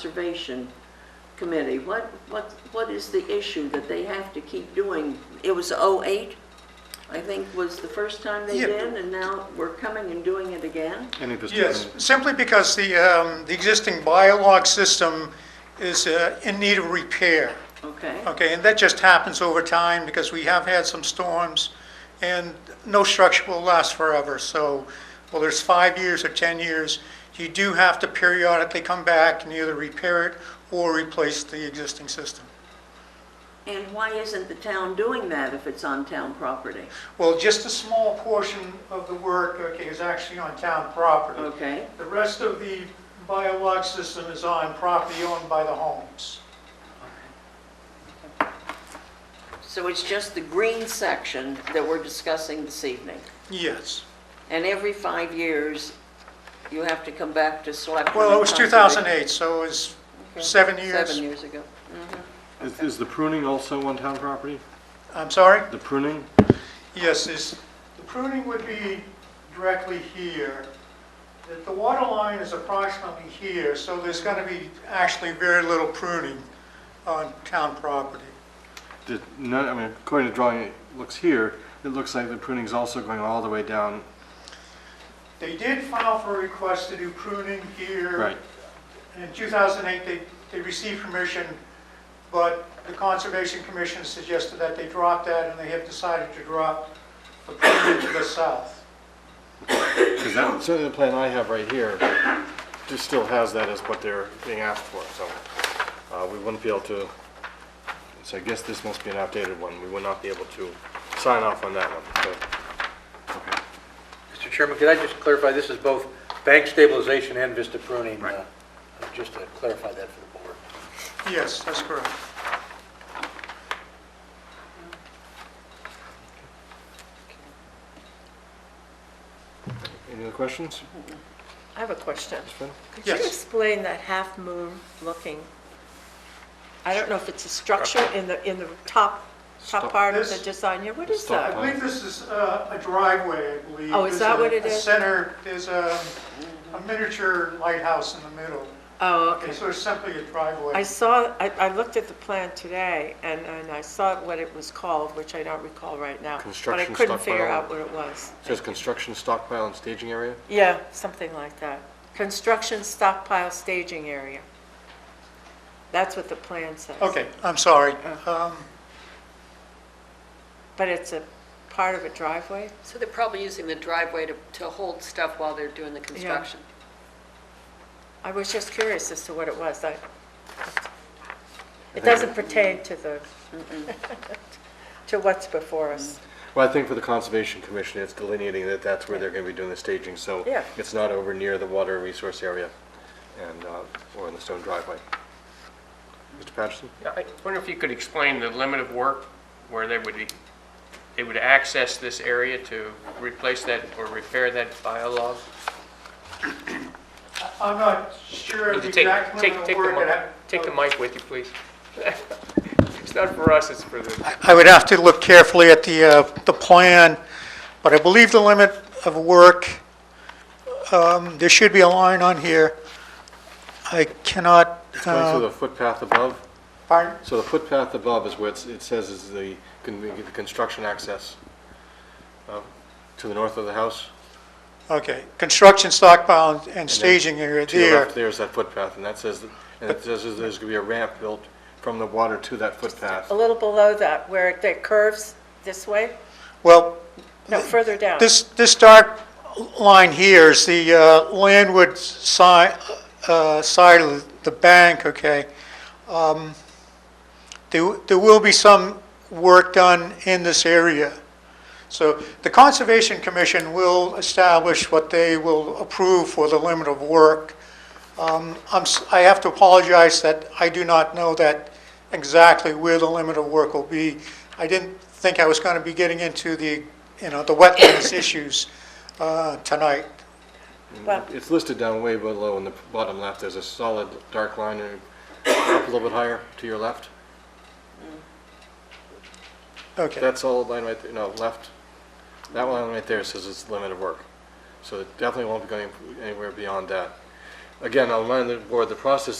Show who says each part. Speaker 1: Conservation Committee, what, what, what is the issue that they have to keep doing? It was '08, I think, was the first time they
Speaker 2: Yeah.
Speaker 1: did, and now we're coming and doing it again?
Speaker 3: And it was
Speaker 2: Yes,
Speaker 3: taken-
Speaker 2: simply because the, um, the existing biolog system is uh, in need of repair.
Speaker 1: Okay,
Speaker 2: Okay, and that just happens over time because we have had some storms and no structure will last forever. So whether it's five years or 10 years, you do have to periodically come back and either repair it or replace the existing system.
Speaker 1: and why isn't the town doing that if it's on town property?
Speaker 2: Well, just a small portion of the work, okay, is actually on town property.
Speaker 1: Okay,
Speaker 2: The rest of the biolog system is on property owned by the homes.
Speaker 1: so it's just the green section that we're discussing this evening?
Speaker 2: Yes.
Speaker 1: And every five years, you have to come back to select.
Speaker 2: Well, it was
Speaker 1: Conservation.
Speaker 2: 2008, so it was
Speaker 1: Okay.
Speaker 2: seven years.
Speaker 1: Seven years ago.
Speaker 3: Is, is the pruning also on town property?
Speaker 2: I'm sorry?
Speaker 3: The pruning?
Speaker 2: Yes, is, the pruning would be directly here. The- The water line is approximately here, so there's going to be actually very little pruning on town property.
Speaker 3: Did, no, I mean, according to drawing, it looks here, it looks like the pruning's also going all the way down.
Speaker 2: They did file for a request to do pruning here.
Speaker 3: Right.
Speaker 2: In 2008, they, they received permission, but the Conservation Commission suggested that they drop that, and they have decided to drop the pruning to the south.
Speaker 3: Because that, certainly the plan I have right here, just still has that as what they're being asked for, so, uh, we wouldn't be able to, so I guess this must be an outdated one, we would not be able to sign off on that one, so.
Speaker 4: Mr. Chairman, could I just clarify, this is both bank stabilization and vista pruning? uh, Just to clarify that for the board.
Speaker 2: Yes, that's correct.
Speaker 3: Any other questions,
Speaker 5: I have a question.
Speaker 3: Ms. Flynn?
Speaker 5: Could you
Speaker 2: Yes.
Speaker 5: explain that half-moon looking? I don't know if it's a structure in the, in the top,
Speaker 3: Stop.
Speaker 5: top part of the
Speaker 2: This-
Speaker 5: design here. What is
Speaker 3: Stop.
Speaker 2: I
Speaker 5: that?
Speaker 2: believe this is uh, a driveway, I believe.
Speaker 5: Oh, is
Speaker 2: There's
Speaker 5: that
Speaker 2: a-
Speaker 5: what it
Speaker 2: A
Speaker 5: is?
Speaker 2: center, there's a a miniature lighthouse in the middle.
Speaker 5: Oh,
Speaker 2: Okay,
Speaker 5: okay.
Speaker 2: so it's simply a
Speaker 5: I
Speaker 2: driveway.
Speaker 5: saw, I, I looked at the plan today and, and I saw what it was called, which I don't recall right now.
Speaker 3: Construction
Speaker 5: But I couldn't figure
Speaker 3: stockpile.
Speaker 5: out what it was.
Speaker 3: Says construction stockpile and staging area?
Speaker 5: Yeah, something like that. Construction stockpile staging area. That's what the plan says.
Speaker 2: Okay, I'm sorry. Um,
Speaker 5: But it's a part of a driveway?
Speaker 6: So they're probably using the driveway to, to hold stuff while they're doing the construction.
Speaker 5: I was just curious as to what it was. I- It doesn't pertain to the, to what's before us.
Speaker 3: Well, I think for the Conservation Commission, it's delineating that that's where they're going to be doing the staging, so
Speaker 5: Yeah.
Speaker 3: it's not over near the water resource area and, uh, or in the stone driveway. Mr. Patterson?
Speaker 7: Yeah, I wonder if you could explain the limit of work where they would, be- they would access this area to replace that or repair that biolog?
Speaker 2: I'm not sure
Speaker 7: Would
Speaker 2: the
Speaker 7: you take,
Speaker 2: exact
Speaker 7: take,
Speaker 2: limit
Speaker 7: take
Speaker 2: of
Speaker 7: the
Speaker 2: work. Oh. I'd
Speaker 7: mic,
Speaker 2: have-
Speaker 7: take the mic with you, please? It's not for us, it's for the,
Speaker 2: I would have to look carefully at the, uh, the plan, but I believe the limit of work, um, there should be a line on here. I cannot,
Speaker 3: Going through
Speaker 2: uh,
Speaker 3: the footpath above,
Speaker 2: pardon?
Speaker 3: so the footpath above is where it's, it says is the, con- the construction access uh, to the north of the house.
Speaker 2: okay, construction stockpile and staging area
Speaker 3: To your
Speaker 2: there.
Speaker 3: left, there's that footpath, and that says, and it says is there's going to be a ramp built from the water to that footpath.
Speaker 5: A little below that, where it curves this way?
Speaker 2: Well,
Speaker 5: No, further down.
Speaker 2: This, this dark line here is the uh, landward side, side of the bank, okay? Um, There, there will be some work done in this area. So the Conservation Commission will establish what they will approve for the limit of work. Um, I'm, s- I have to apologize that I do not know that exactly where the limit of work will be. I didn't think I was going to be getting into the, you know, the wetlands issues uh, tonight.
Speaker 5: Well,
Speaker 3: It's listed down way below in the bottom left, there's a solid dark line and up a little bit higher to your left.
Speaker 2: Okay,
Speaker 3: That solid line right there, no, left, that line right there says it's limit of work. So it definitely won't be going anywhere beyond that. Again, I'll remind the board, the process